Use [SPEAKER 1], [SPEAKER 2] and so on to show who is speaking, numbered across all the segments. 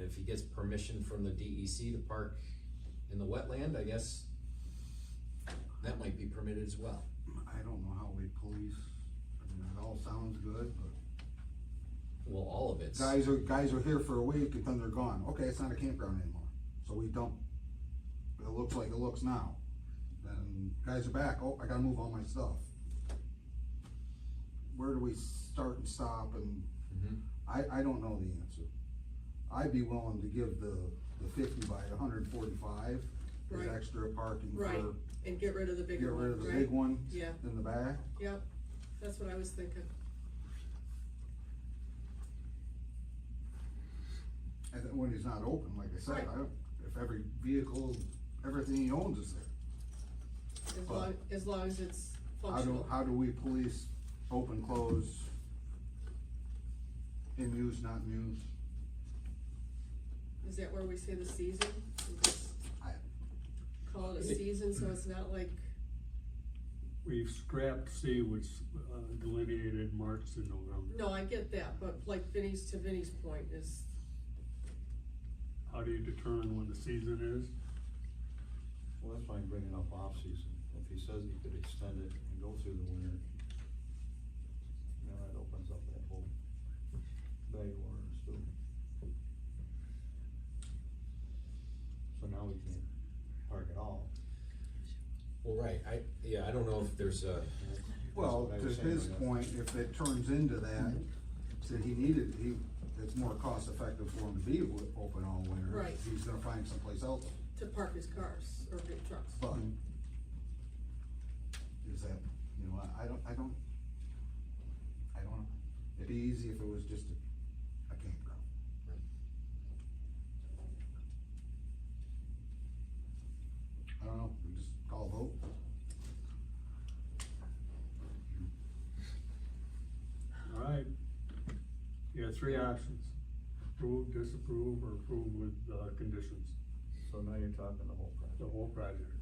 [SPEAKER 1] if he gets permission from the DEC to park in the wetland, I guess that might be permitted as well.
[SPEAKER 2] I don't know how we police, I mean, it all sounds good, but
[SPEAKER 1] Well, all of it's,
[SPEAKER 2] guys are, guys are here for a week and then they're gone, okay, it's not a campground anymore, so we dump, it looks like it looks now. Then guys are back, oh, I gotta move all my stuff. Where do we start and stop and,
[SPEAKER 1] Mhm.
[SPEAKER 2] I, I don't know the answer. I'd be willing to give the, the fifty by hundred and forty-five,
[SPEAKER 3] Right.
[SPEAKER 2] as extra parking
[SPEAKER 3] Right.
[SPEAKER 2] for,
[SPEAKER 3] and get rid of the
[SPEAKER 2] get
[SPEAKER 3] bigger
[SPEAKER 2] rid of
[SPEAKER 3] one,
[SPEAKER 2] the
[SPEAKER 3] right?
[SPEAKER 2] big one
[SPEAKER 3] Yeah,
[SPEAKER 2] in the back.
[SPEAKER 3] yep, that's what I was thinking,
[SPEAKER 2] And then when he's not open, like I said,
[SPEAKER 3] Right.
[SPEAKER 2] I don't, if every vehicle, everything he owns is there.
[SPEAKER 3] as
[SPEAKER 2] Well-
[SPEAKER 3] long, as long as it's
[SPEAKER 2] How do,
[SPEAKER 3] functional.
[SPEAKER 2] how do we police open, close? In use, not in use?
[SPEAKER 3] Is that where we say the season? We just
[SPEAKER 2] I-
[SPEAKER 3] Call it a
[SPEAKER 1] It-
[SPEAKER 3] season, so it's not like,
[SPEAKER 4] We've scrapped C, which uh, delineated March to November.
[SPEAKER 3] no, I get that, but like Vinnie's, to Vinnie's point is,
[SPEAKER 4] How do you determine when the season is?
[SPEAKER 5] Well, that's why I'm bringing up off-season. If he says he could extend it and go through the winter, you know, that opens up that whole bag of worms, so. So now we can't park at all.
[SPEAKER 1] well, right, I, yeah, I don't know if there's a,
[SPEAKER 5] That's- that's
[SPEAKER 2] Well,
[SPEAKER 5] what I
[SPEAKER 2] to
[SPEAKER 5] was saying, Mm-hmm.
[SPEAKER 2] his
[SPEAKER 5] like,
[SPEAKER 2] point, if it turns into that, that he needed, he, it's more cost effective for him to be wi- open all winter.
[SPEAKER 3] Right.
[SPEAKER 2] He's gonna find someplace else,
[SPEAKER 3] to park his cars or big trucks.
[SPEAKER 2] but is that, you know, I, I don't, I don't, I don't know. It'd be easy if it was just a, a campground. I don't know, we just call a vote.
[SPEAKER 4] All right. You have three options, approve, disapprove, or approve with uh, conditions,
[SPEAKER 5] So now you're talking the whole
[SPEAKER 4] the
[SPEAKER 5] project.
[SPEAKER 4] whole project.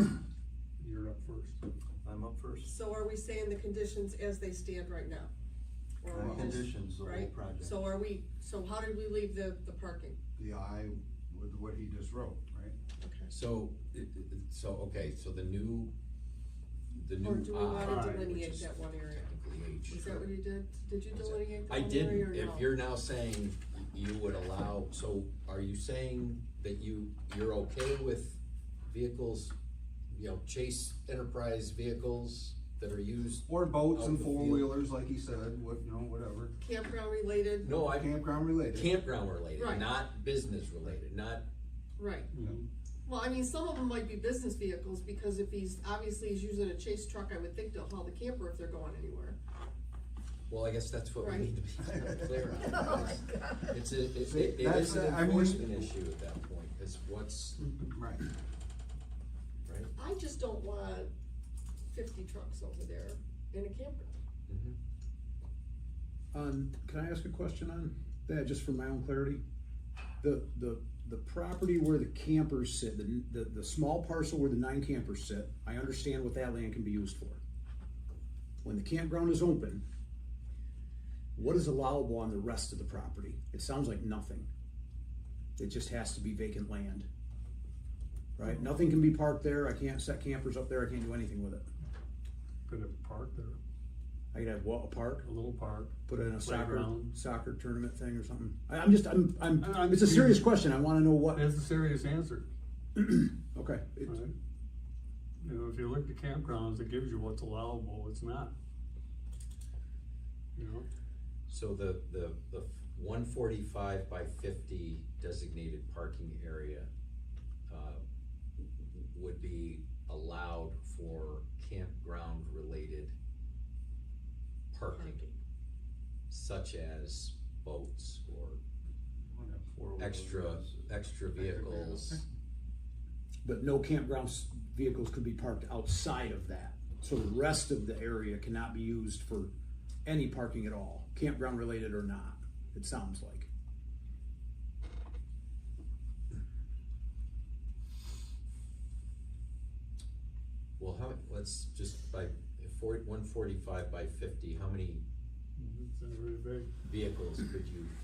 [SPEAKER 4] Yep. You're up first.
[SPEAKER 5] I'm up first.
[SPEAKER 3] So are we saying the conditions as they stand right now? Or
[SPEAKER 2] Uh,
[SPEAKER 3] are we just-
[SPEAKER 5] Conditions, the whole
[SPEAKER 3] right?
[SPEAKER 5] project.
[SPEAKER 3] So are we, so how did we leave the, the parking?
[SPEAKER 2] The I, with what he just wrote, right?
[SPEAKER 3] Okay.
[SPEAKER 1] so, it- it- it- so, okay, so the new, the new.
[SPEAKER 3] Or do we
[SPEAKER 1] I,
[SPEAKER 3] wanna
[SPEAKER 4] Alright, which
[SPEAKER 3] delineate
[SPEAKER 1] is
[SPEAKER 3] that one area?
[SPEAKER 1] Technically H.
[SPEAKER 3] Is that what you did? Did you
[SPEAKER 1] What's that?
[SPEAKER 3] delineate that
[SPEAKER 1] I
[SPEAKER 3] one area or
[SPEAKER 1] didn't,
[SPEAKER 3] no?
[SPEAKER 1] if you're now saying you would allow, so are you saying that you, you're okay with vehicles, you know, chase enterprise vehicles that are used?
[SPEAKER 2] Or boats
[SPEAKER 1] Out
[SPEAKER 2] and
[SPEAKER 1] in the field.
[SPEAKER 2] four-wheelers, like he said, what, you know, whatever,
[SPEAKER 3] Campground related,
[SPEAKER 1] No, I,
[SPEAKER 2] campground related.
[SPEAKER 1] campground related,
[SPEAKER 3] Right.
[SPEAKER 1] not business related, not,
[SPEAKER 3] right.
[SPEAKER 4] Mhm.
[SPEAKER 3] Well, I mean, some of them might be business vehicles, because if he's, obviously he's using a chase truck, I would think they'll haul the camper if they're going anywhere.
[SPEAKER 1] well, I guess that's what we
[SPEAKER 3] Right.
[SPEAKER 1] need to be clear on. It's a, it-
[SPEAKER 2] See,
[SPEAKER 1] it, it
[SPEAKER 2] that's
[SPEAKER 1] is an
[SPEAKER 2] a- I mean-
[SPEAKER 1] enforcement issue at that point, is what's,
[SPEAKER 2] Right,
[SPEAKER 1] right?
[SPEAKER 3] I just don't want fifty trucks over there in a camper.
[SPEAKER 1] Mhm.
[SPEAKER 6] On, Um, can I ask a question on that, just for my own clarity? The, the, the property where the campers sit, the, the, the small parcel where the nine campers sit, I understand what that land can be used for. When the campground is open, what is allowable on the rest of the property? It sounds like nothing. It just has to be vacant land. Right, nothing can be parked there, I can't set campers up there, I can't do anything with it.
[SPEAKER 4] Could have parked there,
[SPEAKER 6] I could have what, a park?
[SPEAKER 4] a little park.
[SPEAKER 6] put in a soccer,
[SPEAKER 4] Playground.
[SPEAKER 6] soccer tournament thing or something? I, I'm just, I'm, I'm,
[SPEAKER 4] I- I'm-
[SPEAKER 6] it's a serious question, I wanna know what,
[SPEAKER 4] That's a serious answer,
[SPEAKER 6] okay. it-
[SPEAKER 4] right? You know, if you look at campgrounds, it gives you what's allowable, what's not. You know?
[SPEAKER 1] So the, the, the one forty-five by fifty designated parking area, uh, would be allowed for campground-related parking, such as boats or
[SPEAKER 5] Four-wheeler
[SPEAKER 1] extra,
[SPEAKER 5] is-
[SPEAKER 1] extra vehicles.
[SPEAKER 6] But no campground s- vehicles could be parked outside of that, so the rest of the area cannot be used for any parking at all, campground related or not, it sounds like.
[SPEAKER 1] Well, how, let's just by, forty, one forty-five by fifty, how many
[SPEAKER 4] It's not very big.
[SPEAKER 1] vehicles could you fit